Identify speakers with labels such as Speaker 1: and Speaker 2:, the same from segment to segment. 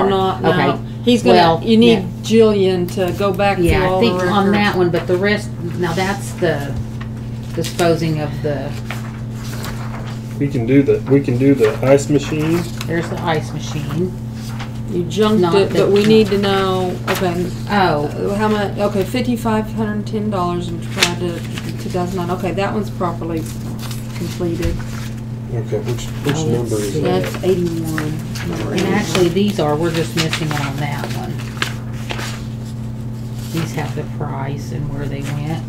Speaker 1: not,
Speaker 2: Okay.
Speaker 1: no. He's gonna,
Speaker 2: Well,
Speaker 1: you need Jillian to go back through
Speaker 2: Yeah, I
Speaker 1: all the
Speaker 2: think on that
Speaker 1: records.
Speaker 2: one, but the rest, now that's the disposing of the,
Speaker 3: We can do the, we can do the ice machine.
Speaker 2: there's the ice machine.
Speaker 1: You junked
Speaker 2: Not
Speaker 1: it,
Speaker 2: that-
Speaker 1: but we need to know, okay,
Speaker 2: Oh,
Speaker 1: uh, how much, okay, fifty-five hundred and ten dollars and tried to, two thousand nine, okay, that one's properly completed.
Speaker 3: Okay, which,
Speaker 2: which Oh, number is let's that?
Speaker 1: That's eighty-one. number
Speaker 2: and
Speaker 1: 81.
Speaker 2: actually, these are, we're just missing one on that one. These have the price and where they went,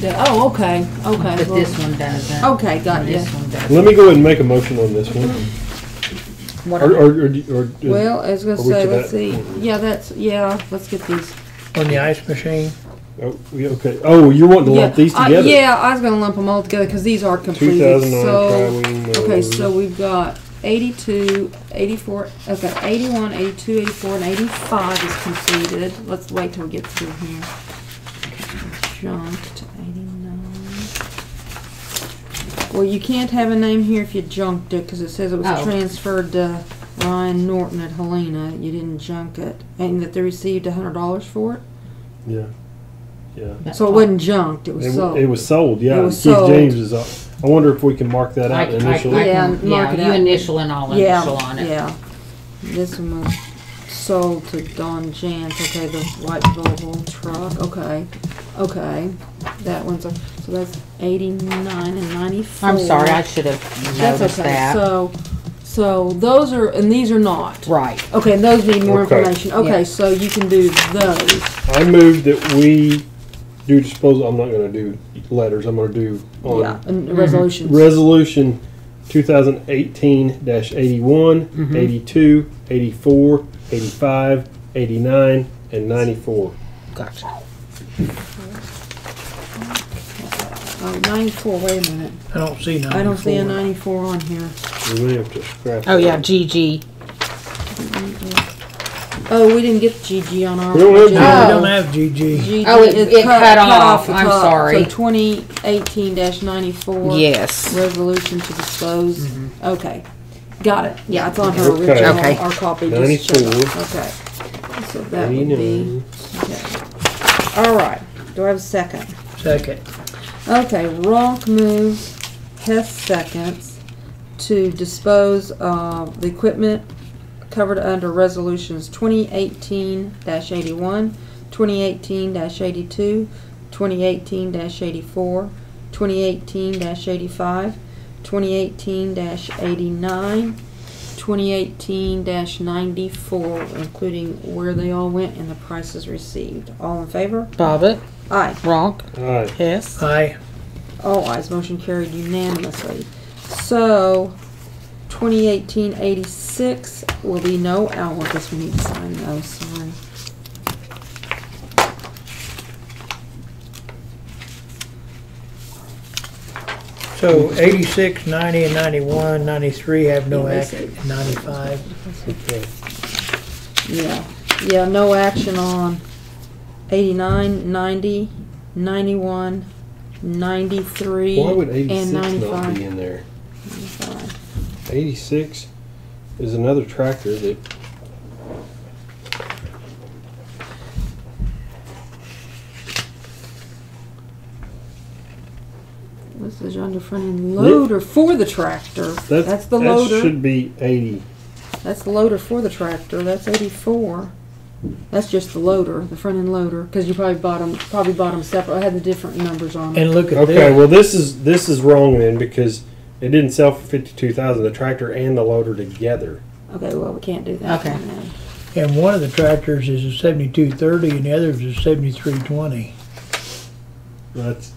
Speaker 1: The- Oh, okay, okay.
Speaker 2: but
Speaker 1: well-
Speaker 2: this one doesn't.
Speaker 1: Okay, got you.
Speaker 2: This one doesn't.
Speaker 3: Let me go ahead and make a motion on this one.
Speaker 2: What
Speaker 3: Or,
Speaker 2: are-
Speaker 3: or, or, do- or do-
Speaker 1: Well, I was gonna
Speaker 3: Are we
Speaker 1: say,
Speaker 3: to
Speaker 1: let's
Speaker 3: that?
Speaker 1: see, yeah, that's, yeah, let's get these.
Speaker 4: on the ice machine.
Speaker 3: oh, we- okay. Oh, you're wanting to lump these
Speaker 1: I-
Speaker 3: together?
Speaker 1: Yeah, I was gonna lump them all together, cause these are
Speaker 3: Two
Speaker 1: completed,
Speaker 3: thousand nine uh,
Speaker 1: so.
Speaker 3: Crywing.
Speaker 1: Okay, so
Speaker 3: Motors.
Speaker 1: we've got eighty-two, eighty-four, okay, eighty-one, eighty-two, eighty-four, and eighty-five is completed. Let's wait till we get through here. Junked, eighty-nine. Well, you can't have a name here if you junked it, cause it says it was
Speaker 2: Oh.
Speaker 1: transferred to Ryan Norton at Helena. You didn't junk it, and that they received a hundred dollars for it.
Speaker 3: Yeah, yeah.
Speaker 2: that
Speaker 1: So it
Speaker 2: part.
Speaker 1: wasn't junked, it was
Speaker 3: It,
Speaker 1: sold.
Speaker 3: w- it was sold, yeah.
Speaker 1: It was
Speaker 3: Keith
Speaker 1: sold.
Speaker 3: James is, up. I wonder if we can mark that
Speaker 2: I
Speaker 3: out
Speaker 2: can- I- I
Speaker 3: initially.
Speaker 1: Yeah,
Speaker 2: can-
Speaker 1: mark it
Speaker 2: Yeah,
Speaker 1: out.
Speaker 2: you initial and I'll
Speaker 1: Yeah,
Speaker 2: initial on it.
Speaker 1: Yeah. This one was sold to Don Jantz, okay, the white Volvo truck, okay, okay. That one's, a so that's eighty-nine and ninety-four.
Speaker 2: I'm sorry, I should have
Speaker 1: That's
Speaker 2: noticed
Speaker 1: okay,
Speaker 2: that.
Speaker 1: so, so those are, and these are not.
Speaker 2: Right,
Speaker 1: Okay, and those need more
Speaker 3: Okay.
Speaker 1: information, okay,
Speaker 2: Yeah.
Speaker 1: so you can do those.
Speaker 3: I move that we do disposal, I'm not gonna do letters, I'm gonna do
Speaker 1: Yeah,
Speaker 3: on
Speaker 2: Mm-hmm.
Speaker 1: and resolutions.
Speaker 3: resolution two thousand eighteen dash eighty-one,
Speaker 2: Mhm.
Speaker 3: eighty-two, eighty-four, eighty-five, eighty-nine, and ninety-four.
Speaker 2: gotcha.
Speaker 1: Oh, ninety-four, wait a minute,
Speaker 4: I don't see ninety-four.
Speaker 1: I don't see a ninety-four on here.
Speaker 3: We may have to scrap.
Speaker 2: Oh, yeah,
Speaker 3: that.
Speaker 2: GG.
Speaker 1: Oh, we didn't get GG on our.
Speaker 3: We don't have
Speaker 1: agenda.
Speaker 4: No,
Speaker 2: Oh.
Speaker 4: we don't have GG.
Speaker 1: GG
Speaker 2: Oh, it-
Speaker 1: is
Speaker 2: it cut off.
Speaker 1: the
Speaker 2: I'm
Speaker 1: top.
Speaker 2: sorry.
Speaker 1: So twenty eighteen ninety-four.
Speaker 2: Yes.
Speaker 1: Resolution to dispose. Okay, got it. Yeah, it's on her
Speaker 3: Okay.
Speaker 1: original,
Speaker 2: Okay.
Speaker 1: our copy. just showed up.
Speaker 3: 94.
Speaker 1: Okay, so that would be,
Speaker 3: Eighty-nine.
Speaker 1: okay. All right, do I have a second?
Speaker 4: Second.
Speaker 1: Okay, Ronk moves, Hess seconds, to dispose of the equipment covered under resolutions twenty eighteen 81 2018-82, 2018 eighty-two, twenty eighteen 84 2018 eighty-five, twenty eighteen 89 2018 ninety-four, including where they all went and the prices received. All in favor?
Speaker 2: Bobbit,
Speaker 1: Aye.
Speaker 2: Ronk,
Speaker 3: All right,
Speaker 2: Hess.
Speaker 4: Aye.
Speaker 1: All eyes, motion carried unanimously. So, 2018-86 will be no, oh, well, I guess we need to sign those, sorry.
Speaker 4: So eighty-six, ninety, and ninety-one, ninety-three have no
Speaker 1: Yeah,
Speaker 4: act,
Speaker 1: they
Speaker 4: and ninety-five.
Speaker 3: okay.
Speaker 1: Yeah, yeah, no action on 89, 90, 91, 93,
Speaker 3: Why would
Speaker 1: and
Speaker 3: eighty-six not be
Speaker 1: 95.
Speaker 3: in there? Eighty-six is another tractor that
Speaker 1: This is under front end loader for the tractor.
Speaker 3: That's,
Speaker 1: That's the
Speaker 3: that
Speaker 1: loader.
Speaker 3: should be 80.
Speaker 1: That's the loader for the tractor, that's eighty-four. That's just the loader, the front end loader, because you probably bought 'em- probably bought 'em separate, I had the different numbers on it.
Speaker 4: And look at
Speaker 3: Okay,
Speaker 4: this.
Speaker 3: well this is this is wrong then because it didn't sell for 52,000 the tractor and the loader together.
Speaker 1: Okay, well, we can't do that.
Speaker 2: Okay.
Speaker 1: then.
Speaker 4: And one of the tractors is a seventy-two thirty and the other is a seventy-three twenty.
Speaker 3: That's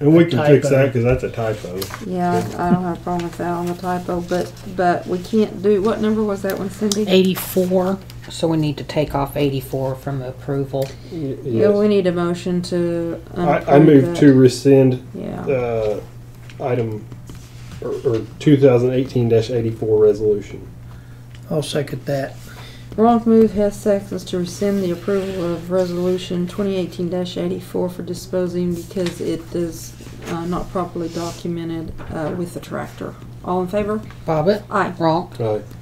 Speaker 3: and we can fix
Speaker 4: Typo.
Speaker 3: that because that's a typo.
Speaker 1: Yeah, I don't have a problem with that on the typo, but, but we can't do, what number was that one, Cindy?
Speaker 2: Eighty-four, so we need to take off eighty-four from approval.
Speaker 1: Yeah,
Speaker 3: Yes.
Speaker 1: we need a motion to.
Speaker 3: I, I
Speaker 1: unapprove
Speaker 3: move
Speaker 1: that.
Speaker 3: to rescind
Speaker 1: Yeah,
Speaker 3: uh, item or, or 2018-84 resolution.
Speaker 4: I'll second that.
Speaker 1: Ronk move Hess seconds to rescind the approval of resolution twenty eighteen eighty-four for disposing because it is, uh, not properly documented, uh, with the tractor. All in favor?
Speaker 2: Bobbit,
Speaker 1: Aye.
Speaker 2: Ronk,
Speaker 3: All right.